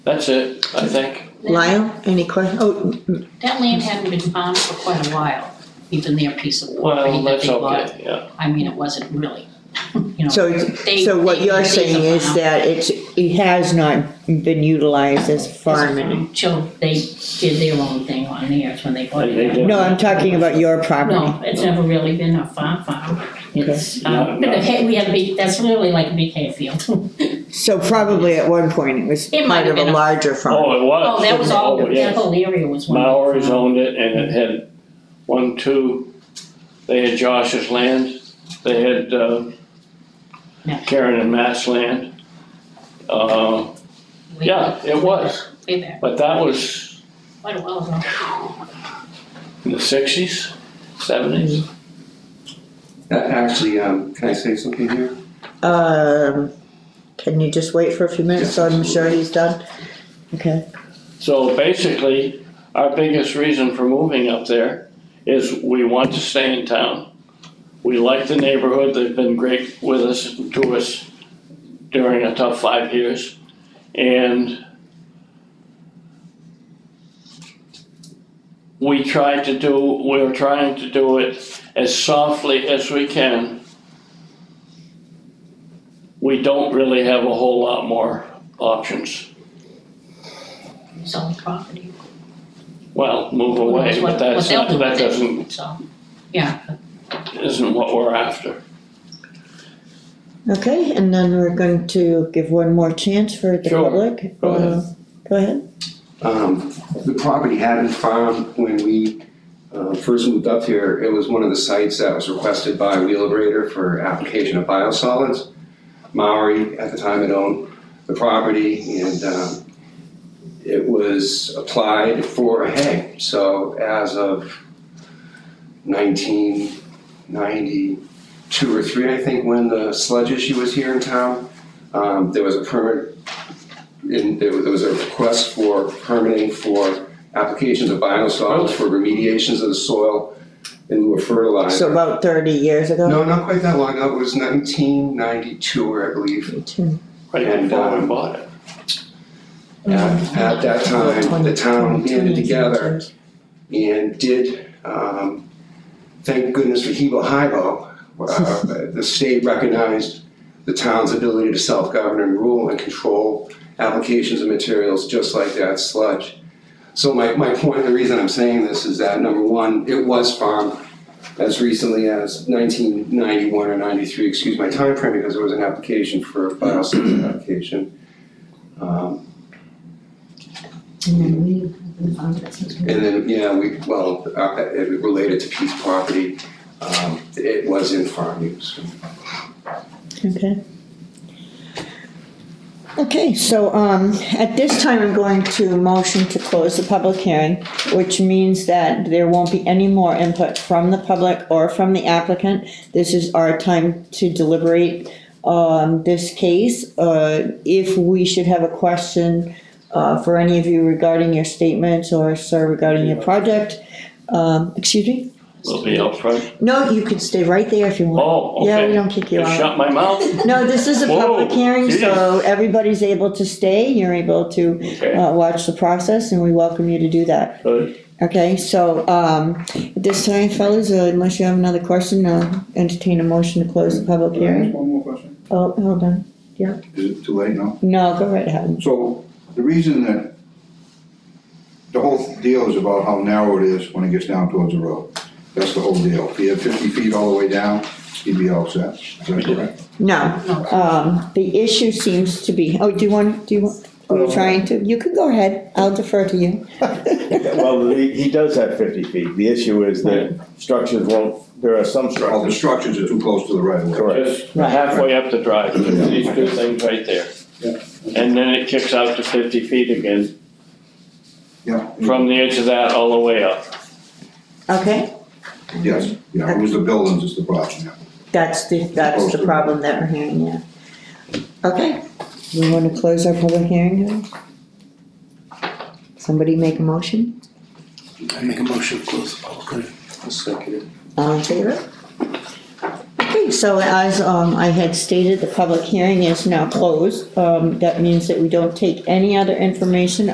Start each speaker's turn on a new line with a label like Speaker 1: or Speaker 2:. Speaker 1: That's it, I think.
Speaker 2: Lyle, any question? Oh, mm,
Speaker 3: That land hadn't been farmed for quite a while, even their piece of property
Speaker 1: Well,
Speaker 3: that
Speaker 1: that's
Speaker 3: they bought.
Speaker 1: okay, yeah.
Speaker 3: I mean, it wasn't really, you know.
Speaker 2: so,
Speaker 3: they-
Speaker 2: so what
Speaker 3: they
Speaker 2: you're
Speaker 3: really
Speaker 2: saying
Speaker 3: don't
Speaker 2: is
Speaker 3: know.
Speaker 2: that it's, it has not been utilized as farming.
Speaker 3: Till they did their own thing on theirs when they bought
Speaker 1: They- they
Speaker 3: it.
Speaker 1: did.
Speaker 2: No, I'm talking about your property.
Speaker 3: No, it's never really been a farm farm. It's, uh, but the hay, we had a big, that's really like a big hayfield.
Speaker 2: So probably at one point it was
Speaker 3: It might
Speaker 2: part
Speaker 3: have
Speaker 2: of a
Speaker 3: been a-
Speaker 2: larger farm.
Speaker 1: Oh, it was.
Speaker 3: Oh, that was all,
Speaker 1: Oh,
Speaker 3: that
Speaker 1: yes.
Speaker 3: whole area was one. big
Speaker 1: Maoris
Speaker 3: farm.
Speaker 1: owned it and it had one, two, they had Josh's land, they had, uh,
Speaker 3: Yeah.
Speaker 1: Karen and Matt's land. Uh,
Speaker 3: Way
Speaker 1: yeah,
Speaker 3: back-
Speaker 1: it was,
Speaker 3: Way back,
Speaker 1: but that was
Speaker 3: quite a while ago.
Speaker 1: in the sixties, seventies.
Speaker 4: Uh, Actually, um, can I say something here?
Speaker 2: Um, can you just wait for a few minutes, so I'm
Speaker 4: Yes.
Speaker 2: sure he's done? Okay,
Speaker 1: So basically, our biggest reason for moving up there is we want to stay in town. We like the neighborhood, they've been great with us, to us during a tough five years. And we tried to do, we're trying to do it as softly as we can. We don't really have a whole lot more options.
Speaker 3: selling property.
Speaker 1: Well, move away, but
Speaker 3: What-
Speaker 1: that's
Speaker 3: what
Speaker 1: not,
Speaker 3: they'll do
Speaker 1: that
Speaker 3: with it,
Speaker 1: doesn't,
Speaker 3: So, yeah,
Speaker 1: isn't what we're after.
Speaker 2: okay, and then we're going to give one more chance for the
Speaker 1: Sure.
Speaker 2: public.
Speaker 1: Go ahead.
Speaker 2: Uh, Go ahead.
Speaker 4: Um, the property had been farmed when we, uh, first moved up here. It was one of the sites that was requested by Wheelabrator for application of biosolids. Maori at the time had owned the property and, um, it was applied for a hay. So as of nineteen ninety-two or three, I think, when the sludge issue was here in town, um, there was a permit in, there was there was a request for permitting for applications of biosolids for remediations of the soil in lieu of
Speaker 2: So
Speaker 4: fertilizer.
Speaker 2: about thirty years ago?
Speaker 4: No, not quite that long ago, it was nineteen ninety-two, I believe.
Speaker 2: Two.
Speaker 1: Right
Speaker 4: And,
Speaker 1: before we
Speaker 4: um,
Speaker 1: bought it.
Speaker 4: At, at that time, the town banded
Speaker 2: 20,
Speaker 4: together and did, um, thank goodness for Hebo Hibo. Uh, the state recognized the town's ability to self-govern and rule and control applications of materials just like that sludge. So my, my point, the reason I'm saying this is that number one, it was farmed as recently as nineteen ninety-one or ninety-three, excuse my time frame, because there was an application for a biosolids application. Um, And then, yeah, we, well, uh, it related to Pete's property, um, it was in farm use.
Speaker 2: Okay. Okay, so, um, at this time, I'm going to motion to close the public hearing, which means that there won't be any more input from the public or from the applicant. This is our time to deliberate on this case. Uh, if we should have a question, uh, for any of you regarding your statements or, sir, regarding your project, um, excuse me?
Speaker 1: We'll be out front.
Speaker 2: No, you can stay right there if you want.
Speaker 1: Oh,
Speaker 2: Yeah, we
Speaker 1: okay.
Speaker 2: don't kick you
Speaker 1: You
Speaker 2: out.
Speaker 1: shut my mouth?
Speaker 2: No, this is a
Speaker 1: Whoa,
Speaker 2: public hearing, so
Speaker 1: geez.
Speaker 2: everybody's able to stay, you're able to
Speaker 1: Okay,
Speaker 2: uh, watch the process, and we welcome you to do that.
Speaker 1: good.
Speaker 2: Okay, so, um, at this time, fellas, uh, unless you have another question, uh, entertain a motion to close the public hearing.
Speaker 5: One more question.
Speaker 2: Oh, hold on,
Speaker 5: Is it too late now?
Speaker 2: no, go right ahead.
Speaker 5: So the reason that the whole deal is about how narrow it is when it gets down towards the road. That's the whole deal. If you had fifty feet all the way down, you'd be all set. Is that correct?
Speaker 2: No,
Speaker 3: no,
Speaker 2: um, the issue seems to be, oh, do you want, do you, want- are you trying to, you can go ahead, I'll defer to you.
Speaker 6: Well, he, he does have fifty feet, the issue is that structures won't, there are some
Speaker 5: All the
Speaker 6: structures.
Speaker 5: structures are too close to the right of way.
Speaker 6: Correct.
Speaker 1: Just halfway up the drive, there's these two things right there. And then it kicks out to fifty feet again,
Speaker 5: Yeah.
Speaker 1: from the edge of that all the way up.
Speaker 2: Okay,
Speaker 5: Yes, yeah, it was the buildings is the problem, yeah.
Speaker 2: that's the, that's the problem that we're hearing, yeah. Okay, we wanna close our public hearing now? Somebody make a motion,
Speaker 7: I make a motion to close the public hearing.
Speaker 4: Second.
Speaker 2: all in favor? Okay, Okay, so as um, I had stated, the public hearing is now closed. Um, That means that we don't take any other information